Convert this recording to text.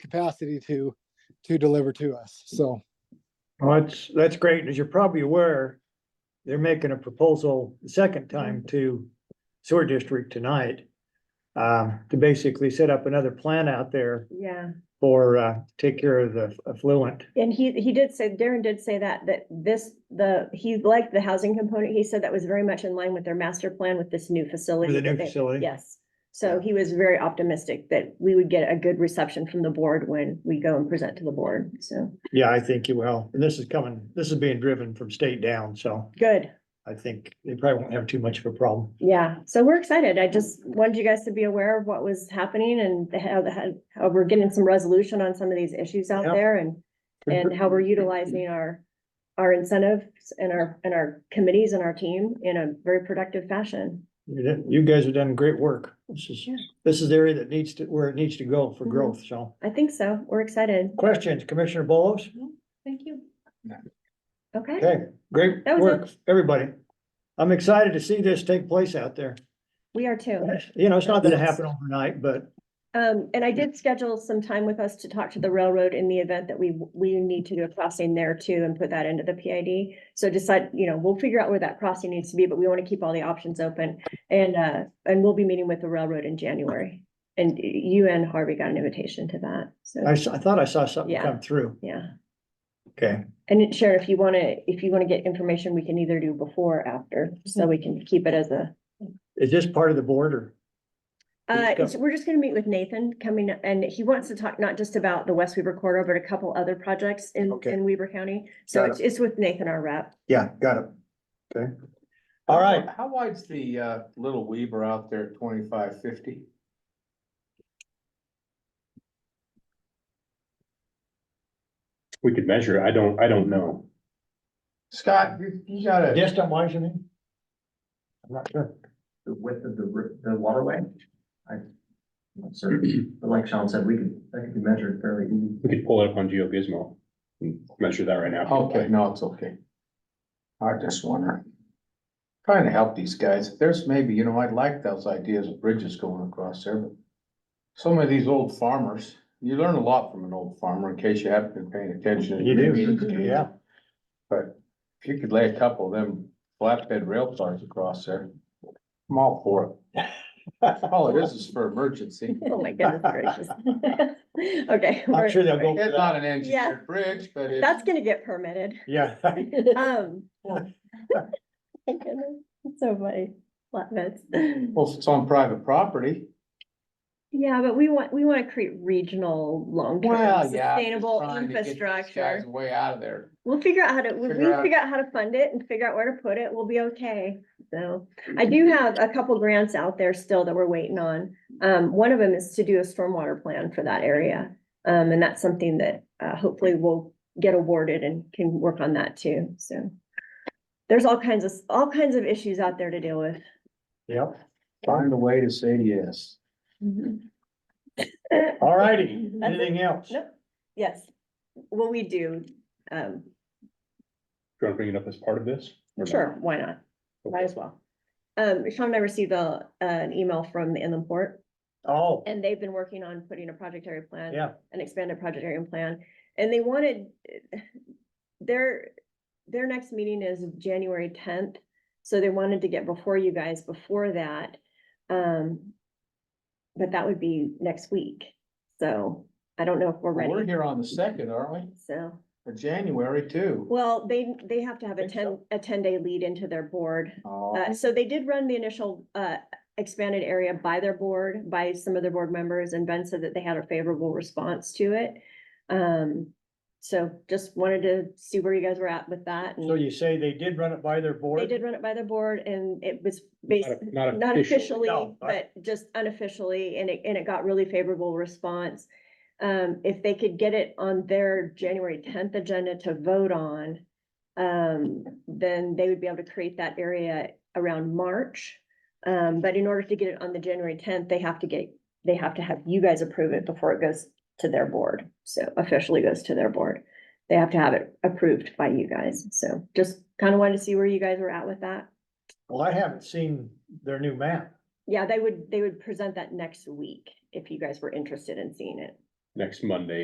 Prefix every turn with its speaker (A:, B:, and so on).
A: capacity to, to deliver to us. So,
B: Well, that's, that's great. As you're probably aware, they're making a proposal the second time to sewer district tonight. Um, to basically set up another plant out there
C: Yeah,
B: for, uh, take care of the affluent.
C: and he, he did say, Darren did say that, that this, the, he liked the housing component. He said that was very much in line with their master plan with this new facility.
B: new
C: that they-
B: facility.
C: Yes, so he was very optimistic that we would get a good reception from the board when we go and present to the board, so,
B: Yeah, I think you will. And this is coming, this is being driven from state down, so
C: good,
B: I think they probably won't have too much of a problem.
C: yeah. So we're excited. I just wanted you guys to be aware of what was happening and how, the- how, how we're getting some resolution on some of these issues out
B: Yep.
C: there and and how we're utilizing our, our incentives and our, and our committees and our team in a very productive fashion.
B: You did- you guys have done great work. This is,
C: Yeah.
B: this is the area that needs to, where it needs to go for
C: Mhm.
B: growth, so.
C: I think so. We're excited.
B: Questions, Commissioner Bolos?
C: Thank you. Okay,
B: Okay, great
C: That was
B: work, everybody. I'm excited to see this take place out there.
C: we are too.
B: You know, it's not gonna
C: Yes.
B: happen overnight, but
C: Um, and I did schedule some time with us to talk to the railroad in the event that we, we need to do a crossing there too and put that into the PID. So decide, you know, we'll figure out where that crossing needs to be, but we want to keep all the options open. And, uh, and we'll be meeting with the railroad in January. And you and Harvey got an invitation to that, so,
B: I, s- I thought I saw something
C: Yeah.
B: come through.
C: yeah.
B: Okay,
C: And it- Sharon, if you want to, if you want to get information, we can either do before or after, so we can keep it as a.
B: is this part of the border?
C: Uh,
B: Just go.
C: it's- we're just going to meet with Nathan coming, up, and he wants to talk not just about the West Weaver corridor, but a couple other projects in,
B: Okay.
C: in Weaver County. So
B: Got
C: it's, it's with Nathan, our rep.
B: Yeah, got it. Okay.
D: How
B: All
D: wi-
B: right,
D: How wide's the uh little Weaver out there, twenty-five fifty?
E: We could measure, it. I don't, I don't know.
D: Scott, you you got a
B: distant wise, you mean? I'm not sure.
F: the width of the, ri- the waterway. I, am not certain, but like Sean said, we could, that could be measured fairly easy.
E: We could pull it up on GeoGizmo and measure that right now.
D: Okay, no, it's okay. I just wonder. Trying to help these guys. If There's maybe, you know, I'd like those ideas of bridges going across there, but. Some of these old farmers, you learn a lot from an old farmer in case you haven't been paying attention.
B: You do,
D: Meetings, do you?
B: yeah.
D: But if you could lay a couple of them flatbed rail cars across there, I'm all for it. All it is is for emergency.
C: Oh my goodness gracious. Okay.
B: I'm
C: we're-
B: sure they'll go for
D: It's
B: that.
D: not an
C: Yeah.
D: engineered bridge, but it's.
C: That's going to get permitted.
B: Yeah,
C: Um. my goodness, it's So funny, flatbeds.
D: Well, if it's on private property,
C: Yeah, but we want, we want to create regional, long-term,
D: well, yeah. I'm just
C: sustainable
D: trying to get these guys
C: infrastructure.
D: Way out of there.
C: We'll figure out how to, when we
D: figure out-
C: figure out how to fund it and figure out where to put it, we'll be okay. So I do have a couple grants out there still that we're waiting on. Um, one of them is to do a stormwater plan for that area. Um, and that's something that, uh, hopefully we'll get awarded and can work on that too, so. There's all kinds of, all kinds of issues out there to deal with.
B: yep.
D: Find a way to say yes.
B: All righty,
C: That's it.
B: anything else?
C: Nope. Yes, well, we do, um,
E: Do you want to bring it up as part of this? or not?
C: Sure, why not? Might as well. Um, Sean and I received a, an email from the Inland Port,
B: Oh,
C: and they've been working on putting a project area plan.
B: yeah,
C: An expanded project area plan, and they wanted, their, their next meeting is January tenth. So they wanted to get before you guys before that, um, but that would be next week, so I don't know if we're
D: We're
C: ready,
D: here on the second, aren't we?
C: so.
D: For January too.
C: Well, they, they have to have a
D: Think so?
C: ten, a ten-day lead into their board,
D: Oh,
C: Uh, so they did run the initial, uh, expanded area by their board, by some of their board members, and Ben said that they had a favorable response to it. Um, so just wanted to see where you guys were at with that.
B: so
C: and
B: you say they did run it by their board?
C: They did run it by their board and it was
E: Not
C: based,
E: a- Not
C: not officially,
E: officially.
B: No, I-
C: but just unofficially, and it, and it got really favorable response. Um, if they could get it on their January tenth agenda to vote on, um, then they would be able to create that area around March. Um, but in order to get it on the January tenth, they have to get, they have to have you guys approve it before it goes to their board. So officially goes to their board. They have to have it approved by you guys. So just kind of wanted to see where you guys were at with that.
B: Well, I haven't seen their new map.
C: Yeah, they would, they would present that next week if you guys were interested in seeing it.
E: Next Monday